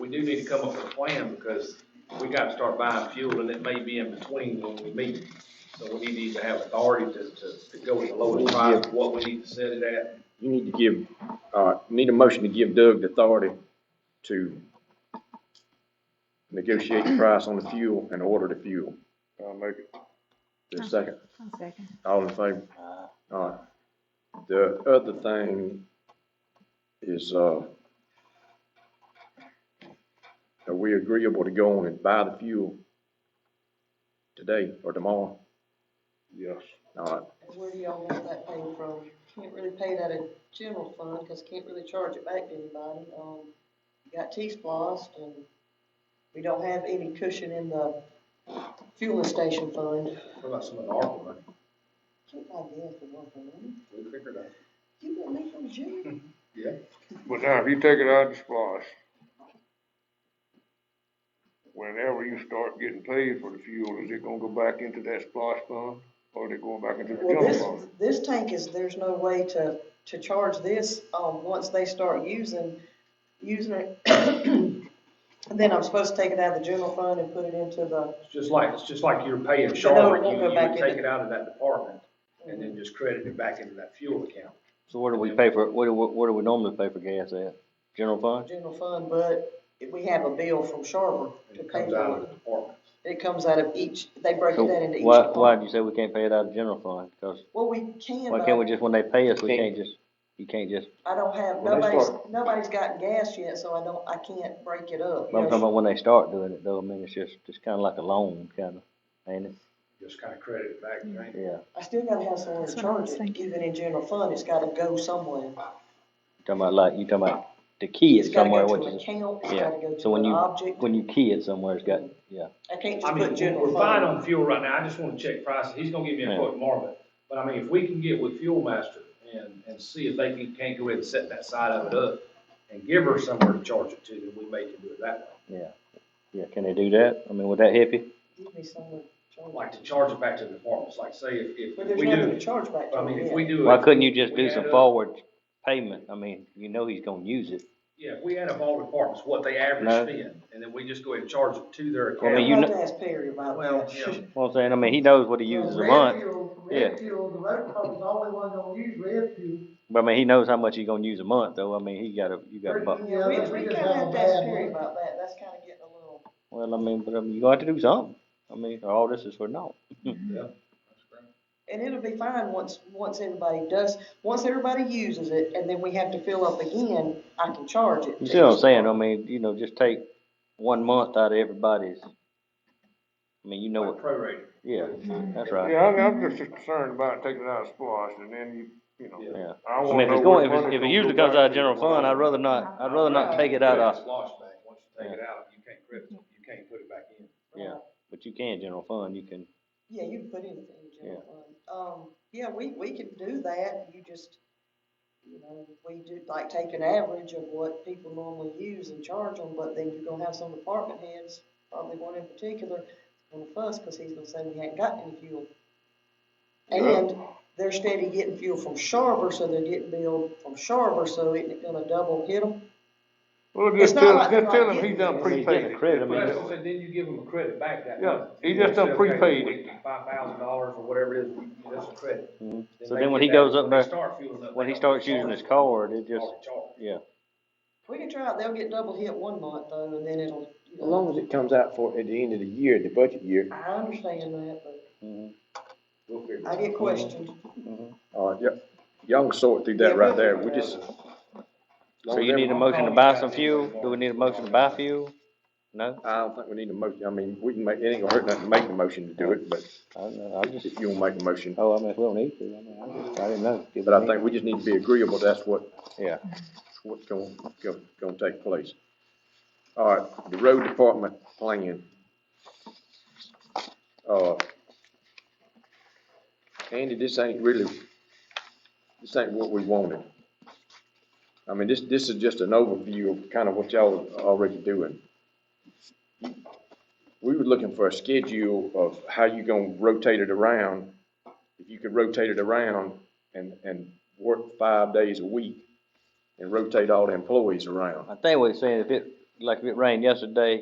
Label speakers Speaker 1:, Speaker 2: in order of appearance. Speaker 1: do need to come up with a plan, because we gotta start buying fuel, and it may be in between when we meet. So we need to either have authority to, to, to go with the lowest price, what we need to set it at.
Speaker 2: You need to give, uh, need a motion to give Doug the authority to negotiate the price on the fuel and order the fuel.
Speaker 3: I'll make it.
Speaker 2: Is there a second?
Speaker 4: One second.
Speaker 2: All in favor? All right. The other thing is, uh, are we agreeable to go on and buy the fuel today or tomorrow?
Speaker 3: Yes.
Speaker 2: All right,
Speaker 5: Where do y'all want that paid from? Can't really pay it out of general fund, cause can't really charge it back to anybody, um, got T-splost and we don't have any cushion in the fueling station fund.
Speaker 1: What about some of the ARPA money?
Speaker 5: Can't buy gas with one fund.
Speaker 1: We figured out.
Speaker 5: You want me from jail?
Speaker 1: Yeah.
Speaker 3: But now, if you take it out of the splash, whenever you start getting paid for the fuel, is it gonna go back into that splash fund? Or is it going back into the
Speaker 5: Well,
Speaker 3: general
Speaker 5: this,
Speaker 3: fund?
Speaker 5: this tank is, there's no way to, to charge this, um, once they start using, using it. Then I'm supposed to take it out of the general fund and put it into the,
Speaker 1: It's just like, it's just like you're paying
Speaker 5: it
Speaker 1: Charlotte,
Speaker 5: won't
Speaker 1: you,
Speaker 5: go
Speaker 1: you
Speaker 5: back
Speaker 1: would
Speaker 5: in
Speaker 1: take
Speaker 5: the-
Speaker 1: it out of that department, and then just credit it back into that fuel account.
Speaker 6: So what do we pay for, what do, we- what do we normally pay for gas at? General fund?
Speaker 5: general fund, but if we have a bill from Sharper
Speaker 1: And
Speaker 5: to
Speaker 1: it
Speaker 5: pay
Speaker 1: comes out of
Speaker 5: for
Speaker 1: the
Speaker 5: it.
Speaker 1: department.
Speaker 5: It comes out of each, they break
Speaker 6: So
Speaker 5: that into each
Speaker 6: why, why'd you
Speaker 5: department.
Speaker 6: say we can't pay it out of general fund? 'Cause
Speaker 5: Well, we can,
Speaker 6: why can't we
Speaker 5: but
Speaker 6: just, when they pay us, we
Speaker 2: Can't-
Speaker 6: can't just, you can't just,
Speaker 5: I don't have,
Speaker 3: Well, they
Speaker 5: nobody's,
Speaker 3: start-
Speaker 5: nobody's gotten gas yet, so I don't, I can't break it up. you
Speaker 6: I'm
Speaker 5: know.
Speaker 6: talking about when they start doing it though, I mean, it's just, it's kinda like a loan, kinda, ain't it?
Speaker 1: Just kinda credit it back, right?
Speaker 6: Yeah,
Speaker 5: I still gotta have somewhere to
Speaker 4: That's what I
Speaker 5: charge
Speaker 4: was
Speaker 5: it,
Speaker 4: thinking.
Speaker 5: even in general fund, it's gotta go somewhere.
Speaker 6: You talking about like, you talking about the key
Speaker 5: It's
Speaker 6: is
Speaker 5: gotta
Speaker 6: somewhere,
Speaker 5: go
Speaker 6: which
Speaker 5: to an
Speaker 6: is,
Speaker 5: account, it's
Speaker 6: yeah.
Speaker 5: gotta go
Speaker 6: So
Speaker 5: to
Speaker 6: when
Speaker 5: an
Speaker 6: you-
Speaker 5: object,
Speaker 6: when you key it somewhere, it's got, yeah.
Speaker 5: I can't
Speaker 1: I
Speaker 5: just
Speaker 1: mean,
Speaker 5: put general
Speaker 1: we're
Speaker 5: fund.
Speaker 1: fine on fuel right now, I just wanna check prices, he's gonna give me a
Speaker 6: Yeah.
Speaker 1: quote tomorrow, but, but I mean, if we can get with Fuel Master and, and see if they can, can't go ahead and set that side of it up and give her somewhere to charge it to, then we may can do it that way.
Speaker 6: Yeah, yeah, can they do that? I mean, would that help you?
Speaker 5: Give me somewhere to charge
Speaker 1: Like to charge it back to the departments, like say if,
Speaker 5: it.
Speaker 1: if
Speaker 5: But there's
Speaker 1: we
Speaker 5: nothing to
Speaker 1: do,
Speaker 5: charge back to
Speaker 1: I mean, if we
Speaker 5: it
Speaker 1: do.
Speaker 6: Why
Speaker 1: it-
Speaker 6: couldn't you just
Speaker 1: we
Speaker 6: do
Speaker 1: add
Speaker 6: some
Speaker 1: up-
Speaker 6: forward payment? I mean, you know he's gonna use it.
Speaker 1: Yeah, if we add up all departments, what they average
Speaker 6: No.
Speaker 1: spend, and then we just go ahead and charge it to their
Speaker 6: Well, I
Speaker 1: account.
Speaker 6: mean,
Speaker 5: yet.
Speaker 6: you
Speaker 5: I'll
Speaker 6: know-
Speaker 5: have to ask Perry about
Speaker 1: Well,
Speaker 5: that.
Speaker 1: yeah,
Speaker 6: Well, I'm saying, I mean, he knows what he
Speaker 7: Well,
Speaker 6: uses a
Speaker 7: red
Speaker 6: month,
Speaker 7: fuel-
Speaker 6: Yeah.
Speaker 7: Red fuel, the road department's the only one gonna use red fuel.
Speaker 6: but I mean, he knows how much he's gonna use a month, though. I mean, he gotta, you gotta, bu-
Speaker 5: Yeah, we,
Speaker 7: unless
Speaker 5: we
Speaker 7: just
Speaker 5: kinda have
Speaker 7: a
Speaker 5: to ask
Speaker 7: bad
Speaker 5: Perry
Speaker 7: month.
Speaker 5: about that, that's kinda getting a little.
Speaker 6: well, I mean, but I mean, you got to do something. I mean, all this is for naught.
Speaker 5: And it'll be fine once, once everybody does, once everybody uses it, and then we have to fill up again, I can charge it.
Speaker 6: You see what I'm saying? I mean, you know, just take one month out of everybody's. I mean, you know
Speaker 1: like
Speaker 6: what,
Speaker 1: prorated.
Speaker 6: yeah, that's
Speaker 3: Yeah,
Speaker 6: right,
Speaker 3: I mean, I'm just concerned about taking it out of splash and then you, you know.
Speaker 1: Yeah.
Speaker 6: yeah.
Speaker 3: I
Speaker 6: I
Speaker 3: wanna
Speaker 6: mean, if
Speaker 3: know what
Speaker 6: it's going, if
Speaker 3: money
Speaker 6: it's, if it
Speaker 3: gonna
Speaker 6: usually
Speaker 3: go
Speaker 6: comes
Speaker 3: back
Speaker 6: out of
Speaker 3: to.
Speaker 6: general fund, I'd rather not, I'd rather not take it out
Speaker 1: Credit
Speaker 6: of,
Speaker 1: Lost back, once you take
Speaker 6: Yeah.
Speaker 1: it out, you can't credit, it, you can't put it back in.
Speaker 6: yeah, but you can general fund, you can,
Speaker 5: Yeah, you can put anything in general fund. Um, yeah, we, we can do that, you just, you know, we do, like, take an average of what people normally use and charge them, but then you're gonna have some department heads, probably one in particular, gonna fuss, cause he's gonna say we hadn't got any fuel. And they're steady getting fuel from Sharber, so they're getting billed from Sharber, so isn't it gonna double hit them?
Speaker 3: Well,
Speaker 5: It's
Speaker 3: just
Speaker 5: not
Speaker 3: tell,
Speaker 5: like
Speaker 3: just
Speaker 5: they're
Speaker 3: tell
Speaker 5: not
Speaker 3: him he
Speaker 5: getting
Speaker 3: done
Speaker 5: it.
Speaker 6: I mean, he's getting
Speaker 3: prepaid
Speaker 6: a
Speaker 3: it.
Speaker 6: credit, I mean,
Speaker 1: Well, that's
Speaker 6: it's-
Speaker 1: what I said, then you give them a credit back that
Speaker 3: Yeah,
Speaker 1: month.
Speaker 3: he just done prepaid it.
Speaker 1: Five thousand dollars or whatever it is, you- that's a credit.
Speaker 6: Mhm. So
Speaker 1: they
Speaker 6: then when
Speaker 1: get
Speaker 6: he
Speaker 1: that-
Speaker 6: goes up
Speaker 1: when they
Speaker 6: there-
Speaker 1: start fueling up,
Speaker 6: when
Speaker 1: they
Speaker 6: he
Speaker 1: don't
Speaker 6: starts using
Speaker 1: charge
Speaker 6: his
Speaker 1: it.
Speaker 6: card, it just,
Speaker 1: Already charged.
Speaker 6: yeah.
Speaker 5: We can try it, they'll get double hit one month though, and then it'll, you
Speaker 2: as long
Speaker 5: know,
Speaker 2: as it comes out for, at the end of the year, the budget year.
Speaker 5: I understand that, but
Speaker 6: mhm.
Speaker 1: We'll figure it out.
Speaker 5: I get questioned.
Speaker 2: All right, yep. Y'all can sort through that right there. We just.
Speaker 6: So you need a motion to buy some fuel? Do we need a motion to buy fuel? No?
Speaker 2: I don't think we need a motion. I mean, we can make, it ain't gonna hurt nothing to make the motion to do it, but
Speaker 6: I don't know, I just,
Speaker 2: if you'll make the motion.
Speaker 6: oh, I mean, if we don't need to, I mean, I just, I didn't know. Did we
Speaker 2: But I
Speaker 6: need-
Speaker 2: think we just need to be agreeable, that's what,
Speaker 6: Yeah,
Speaker 2: what's going, going, going to take place. All right, the road department plan. Uh, Andy, this ain't really, this ain't what we wanted. I mean, this, this is just an overview of kind of what y'all are already doing. We were looking for a schedule of how you gonna rotate it around. If you could rotate it around and, and work five days a week and rotate all the employees around.
Speaker 6: I think what he's saying, if it, like if it rained yesterday,